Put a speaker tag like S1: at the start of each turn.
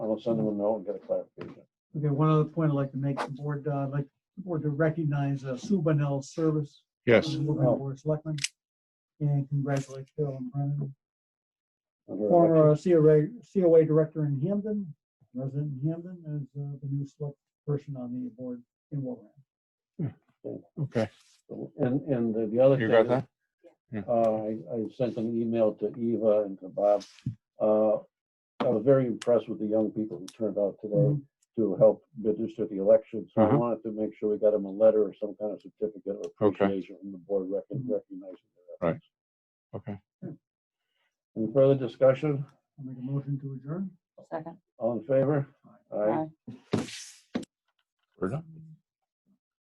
S1: I'll send them a note and get a clarification.
S2: Okay, one other point I'd like to make, the board, uh, I'd like, the board to recognize uh, Sue Bunnell's service.
S3: Yes,
S2: on the Woburn Board of Selectmen, And congratulate Phil and Brennan,
S1: Is there a motion?
S2: former uh, COA, COA director in Hampden, resident in Hampden, as uh, the new select person on the board in Warren.
S3: okay.
S1: And, and the- the other thing.
S3: You got
S1: is,
S3: that? Yeah.
S1: Uh, I, I sent an email to Eva and to Bob. Uh, I was very impressed with the young people who turned out today
S2: Mhm.
S1: to help register the election. So I
S3: Uh-huh.
S1: wanted to make sure we got them a letter or some kind of certificate of
S3: Okay.
S1: appreciation from the board rec- recognizing their efforts.
S3: Okay.
S1: Any further discussion?
S2: I'll make a motion to adjourn.
S4: Second.
S1: All in favor?
S4: Aye.
S3: We're done.